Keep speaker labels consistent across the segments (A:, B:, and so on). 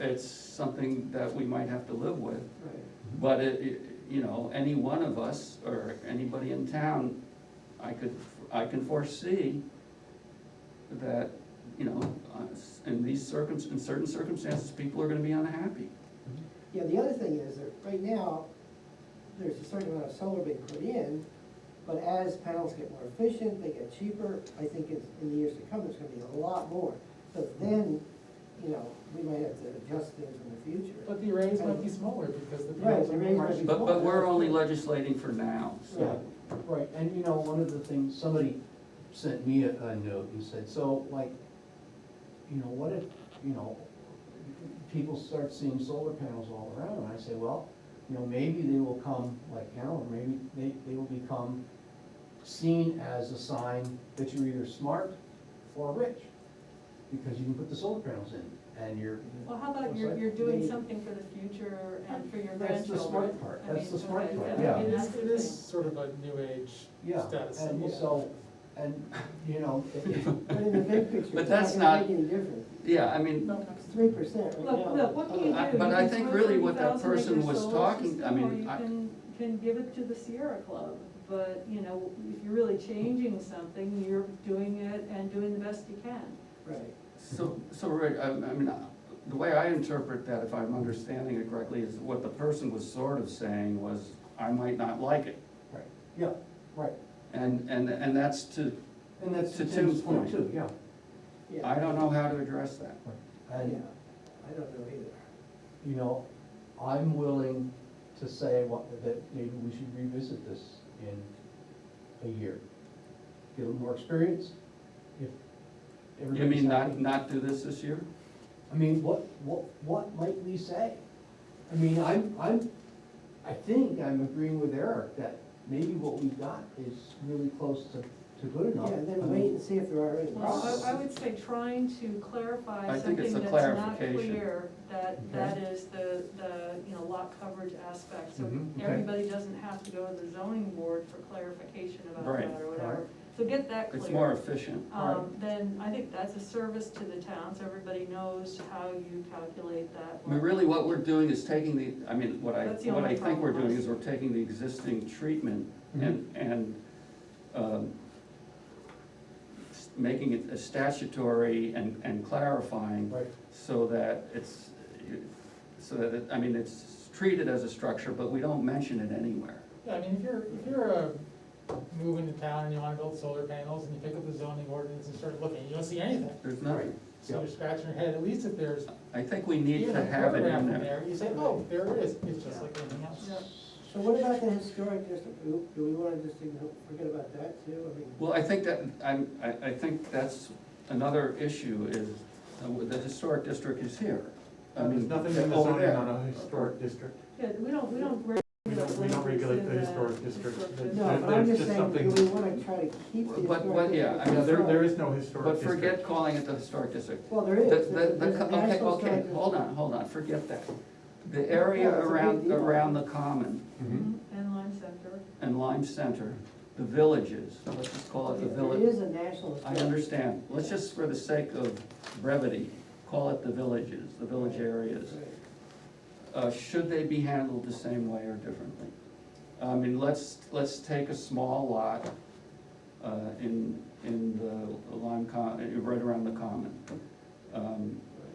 A: it's something that we might have to live with.
B: right.
A: But it, it, you know, any one of us or anybody in town, I could, I can foresee that, you know, uh, in these circum, in certain circumstances, people are gonna be unhappy.
B: Yeah, the other thing is that right now, there's a certain amount of solar being put in, but as panels get more efficient, they get cheaper, I think in, in the years to come, there's gonna be a lot more. But then, you know, we might have to adjust things in the future.
C: But the arrays might be smaller because the.
B: Right,
C: panels
B: the
C: are
B: arrays
C: more-
B: might be-
A: But, but we're only legislating for now,
B: Yeah.
A: so.
D: Right, and you know, one of the things, somebody sent me a, a note and said, so like, you know, what if, you know, people start seeing solar panels all around, and I say, well, you know, maybe they will come, like, you know, maybe they, they will become seen as a sign that you're either smart or rich, because you can put the solar panels in, and you're,
E: Well, how about
D: What's
E: you're,
D: that?
E: you're doing
D: They-
E: something for the future and for your grandchildren?
D: That's the smart part.
E: I
D: That's
E: mean,
D: the smart
E: okay,
D: part,
E: that- I
D: yeah.
E: mean,
C: It
E: that's
C: is,
E: the
C: it is
E: thing.
C: sort of a new age
D: yeah,
C: status. symbol.
D: and so, and, you know, it- it-
B: But in the big picture,
A: But
B: it's
A: that's
B: not gonna
A: not-
B: make any difference.
A: Yeah, I mean,
C: No,
B: It's three percent right now.
E: Look, look, what can you do?
A: I- but
E: You
A: I
E: can
A: think
E: throw
A: really what that
E: 30,000
A: person
E: acre
A: was
E: solar
A: talking- I
E: system,
A: mean,
E: Or you
A: I-
E: can, can give it to the Sierra Club, but, you know, if you're really changing something, you're doing it and doing the best you can.
B: Right,
A: So, so, Rick, I, I mean, uh, the way I interpret that, if I'm understanding it correctly, is what the person was sort of saying was, I might not like it.
D: right, yeah, right,
A: And, and, and that's to,
D: and that's
A: To
D: to
A: Tim's
D: Tim's point
A: point.
D: too, yeah.
B: yeah.
A: I don't know how to address that.
B: Yeah,
D: And,
B: I don't know either.
D: you know, I'm willing to say what, that maybe we should revisit this in a year. Get a little more experience, if
A: You
D: everybody's
A: mean not,
D: happy.
A: not do this this year?
D: I mean, what, what, what might we say? I mean, I'm, I'm, I think I'm agreeing with Eric that maybe what we've got is really close to, to good enough.
B: Yeah,
D: I
B: then
D: mean,
B: wait and see if there are any
E: Well,
B: problems.
E: I, I would say trying to clarify
A: I think it's
E: something
A: a
E: that's not
A: clarification.
E: clear, that, that
D: Okay.
E: is the, the, you know, lot coverage aspect. So
A: Mhm,
D: okay.
E: everybody doesn't have to go to the zoning board for clarification about
A: Right,
E: that or
D: alright.
E: whatever. So get that clear.
A: It's more efficient.
E: Um, then I think that's a service to the town, so everybody knows how you calculate that.
A: I mean, really, what we're doing is taking the, I mean, what I,
E: That's the
A: what I
E: only
A: think we're
E: problem.
A: doing is we're taking the existing treatment and, and, um, s- making it a statutory and, and clarifying
D: Right,
A: so that it's, so that, it- I mean, it's treated as a structure, but we don't mention it anywhere.
C: Yeah, I mean, if you're, if you're, uh, moving to town and you wanna build solar panels and you pick up the zoning ordinance and start looking, you don't see anything.
A: There's nothing,
C: So you're scratching your head, at least if there's
A: I think we need
C: even
A: to
C: a
A: have it
C: paragraph
A: in
C: in
A: there.
C: there, you say, oh, there it is, it's just like anything else.
E: Yeah.
B: So what about the historic district? Do do we wanna just igno- forget about that too? I mean.
A: Well, I think that, I'm, I, I think that's another issue is, uh, the historic district is here. I
F: There's
A: mean,
F: nothing in the
A: over
F: zoning
A: there.
F: on a historic district.
E: Yeah, we don't, we don't. regulate
F: We don't- we don't regulate
E: what's
F: the
E: in
F: historic district.
E: historic
B: No, but I'm
F: There's
B: just
F: just
B: saying, do
F: something-
B: we wanna try to keep the historic?
A: But- but, yeah, I
B: district
A: mean,
F: Yeah, there,
B: control?
F: there is no historic
A: But
F: district.
A: forget calling it the historic district.
B: Well, there
A: The,
B: is.
A: the,
B: There's
A: the,
B: a
A: okay,
B: national
A: okay,
B: historic
A: hold on, hold on, forget that. The area
B: Yeah, it's a big
A: around,
B: deal.
A: around the common
F: Mhm.
E: Mhm,
A: Mm-hmm.
E: And Lime Center.
A: and Lime Center, the villages, let's just call it the
B: district.
A: village.
B: There is a national
A: I
B: historic.
A: understand, let's just, for the sake of brevity, call it the villages, the village areas.
B: Right.
A: Uh, should they be handled the same way or differently? I mean, let's, let's take a small lot, uh, in, in the Lime Con, uh, right around the common. Um,
B: Right.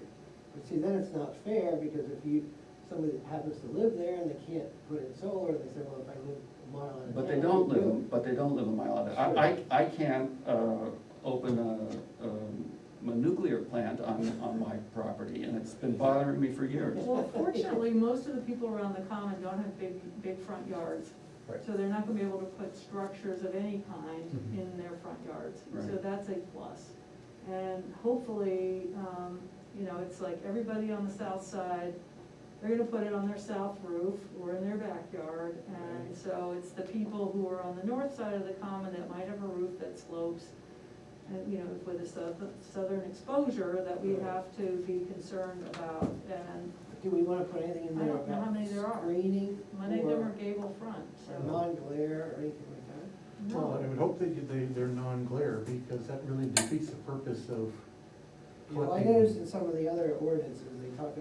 B: But see, then it's not fair, because if you, somebody that happens to live there and they can't put in solar, they say, well, if I live a mile out of
A: But they
B: town,
A: don't
B: I can
A: live, but they don't live a mile out of, I, I, I can't, uh, open a, um, a nuclear plant on, on my property, and it's been bothering me for years.
E: Well, fortunately, most of the people around the common don't have big, big front yards.
D: Right.
E: So they're not gonna be able to put structures of any kind
D: Mhm.
E: in their front yards. So
A: Right.
E: that's a plus. And hopefully, um, you know, it's like everybody on the south side, they're gonna put it on their south roof or in their backyard. And
B: Right.
E: so it's the people who are on the north side of the common that might have a roof that slopes and, you know, with a southern, southern exposure that we
B: Right.
E: have to be concerned about. And
B: do- Do we wanna put anything in
E: I
B: there
E: don't know how
B: about
E: many there are.
B: screening
E: Many of them are
B: or
E: gable front,
B: or
E: so.
B: non-glare or anything like that?
F: Well, I
E: No.
F: would hope that you- they, they're non-glare, because that really defeats the purpose of
B: Well, I
F: collecting.
B: noticed in some of the other ordinances, they talk